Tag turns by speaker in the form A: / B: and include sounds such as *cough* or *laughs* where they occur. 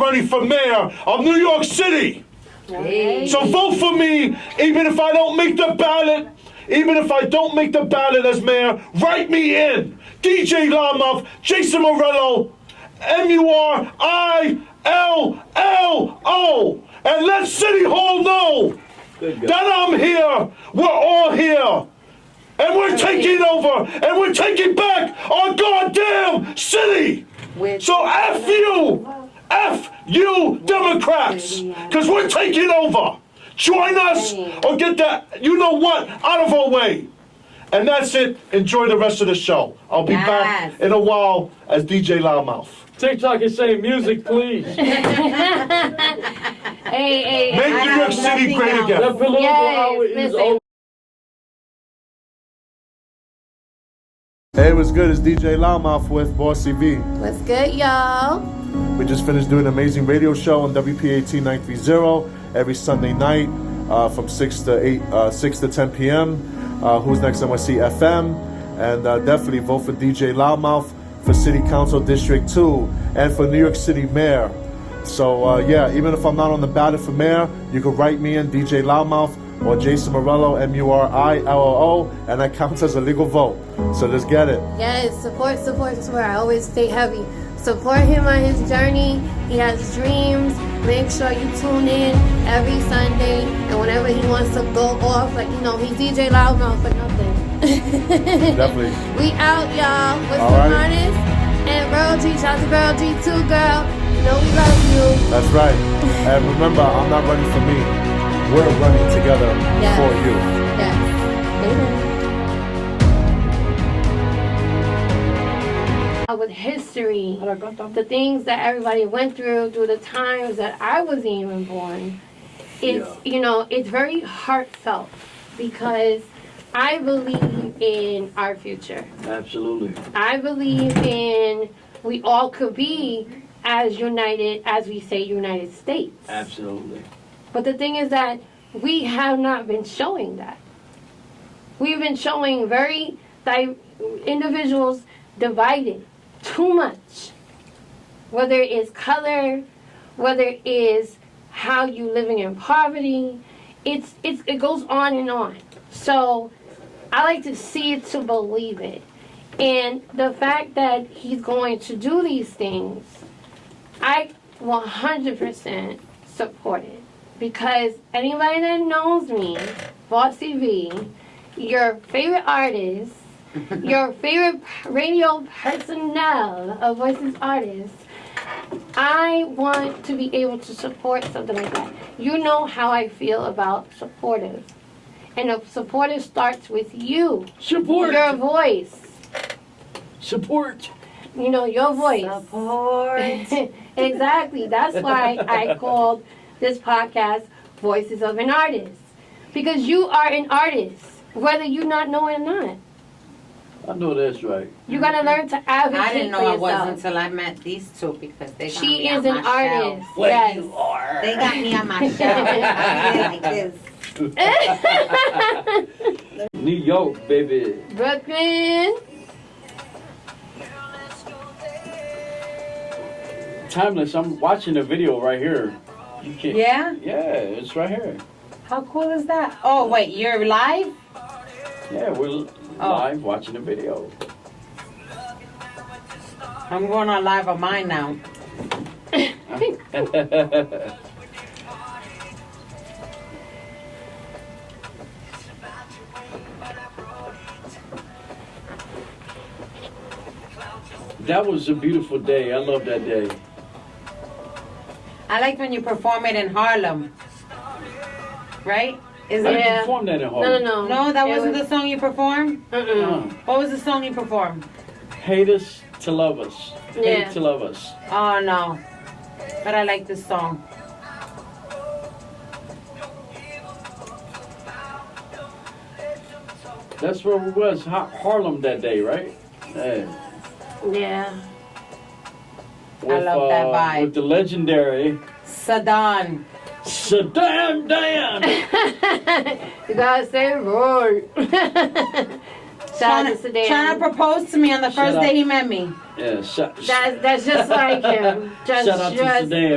A: running for mayor of New York City.
B: Hey.
A: So vote for me, even if I don't make the ballot. Even if I don't make the ballot as mayor, write me in. DJ Lamoff, Jason Morello, M U R I L L O. And let City Hall know that I'm here. We're all here. And we're taking over. And we're taking back our goddamn city.
B: With-
A: So F you! F you Democrats! Because we're taking over! Join us or get that, you know what, out of our way! And that's it. Enjoy the rest of the show. I'll be
B: Yes.
A: back in a while as DJ Loudmouth.
C: TikTok is saying music, please. Let
D: Hey, hey,
A: Make
D: hey.
A: New York City great again.
C: political
D: Yes,
C: hour is
D: listen.
C: over.
A: Hey, what's good? It's DJ Loudmouth with Boss CB.
B: What's good, y'all?
A: We just finished doing an amazing radio show on WPAT 930 every Sunday night uh, from 6 to 8, uh, 6 to 10 p.m. Uh, Who's Next NYC FM. And uh, definitely vote for DJ Loudmouth for City Council District 2 and for New York City Mayor. So, uh, yeah, even if I'm not on the ballot for mayor, you can write me in DJ Loudmouth or Jason Morello, M U R I L L O, and that counts as a legal vote. So let's get it.
B: Yes, support, support, support. I always stay heavy. Support him on his journey. He has dreams. Make sure you tune in every Sunday and whenever he wants to go off, like you know, he DJ Loudmouth for *laughs* nothing.
A: Definitely.
B: We out, y'all. With
A: All
B: the
A: right.
B: artists and Girl G. Shout out to Girl G too, girl. You know we love you.
A: That's right. And remember, I'm not running for me. We're running together
B: Yes.
A: for you.
B: Yes. Later.
D: With history, the things that everybody went through through the times that I wasn't even born, it's you know it's very heartfelt because I believe in our future.
E: Absolutely.
D: I believe in we all could be as united as we say United States.
E: Absolutely.
D: But the thing is that we have not been showing that. We've been showing very di- individuals divided too much. Whether it is color, whether it is how you living in poverty, it's, it's it goes on and on. So I like to see it to believe it. And the fact that he's going to do these things, I 100% support it because anybody that knows me, Bossy V, your favorite artist, your favorite p- radio personnel of Voices Artists, I want to be able to support something like that. You know how I feel about supportive. And a supportive starts with you,
E: Support.
D: your voice.
E: Support.
D: You know, your
F: *laughs*
D: voice.
B: Support.
D: *laughs* exactly. That's why I called this podcast Voices of an Artist. Because you are an artist, whether you not know it or not.
E: I know that's right.
D: You're gonna learn to advocate
F: Mm-hmm. I didn't
D: for
F: know it
D: yourself.
F: was until I met these two because they got
D: she
F: me
D: is
F: on
D: an
F: my
D: artist.
F: Shelf.
D: yes.
E: are.
F: They got me on *laughs* my shelf. I did like this. *laughs*
E: New York, baby.
D: *laughs* Brooklyn.
E: Timeless. I'm watching the video right here. You can't.
F: Yeah?
E: Yeah, it's right here.
F: How cool is that? Oh wait, you're live?
E: Yeah, we're l-
F: Oh.
E: live watching the video.
F: I'm going on live on mine now.
E: Oh. *laughs* that was a beautiful day. I love that day.
F: I like when you perform it in Harlem. Right? Is
E: I
F: it
D: Yeah.
E: didn't perform that in
D: No, no,
E: Harlem.
D: no.
F: No, that
D: It
F: wasn't
D: was-
F: the song you performed?
D: Mm-mm.
F: What was the song you performed?
E: Uh, Hate us to love us. Hate
D: Yeah.
E: to love us.
F: Oh no. But I like this song.
E: That's where we was, Ha- Harlem that day, right? Yeah.
D: Yeah. *laughs*
E: With,
F: love that
E: uh,
F: vibe.
E: With the legendary
F: Sadan.
E: Saddam
D: *laughs*
E: Damn.
D: you gotta say it *laughs* right. Shout out to
F: Tryna- Tryna
D: Sedan.
F: proposed to me on the
E: Shut
F: first
E: up.
F: day he met me.
E: yeah, Sa-
D: That's, that's just like him. Just,
E: Shout out to
D: just
E: Sedan.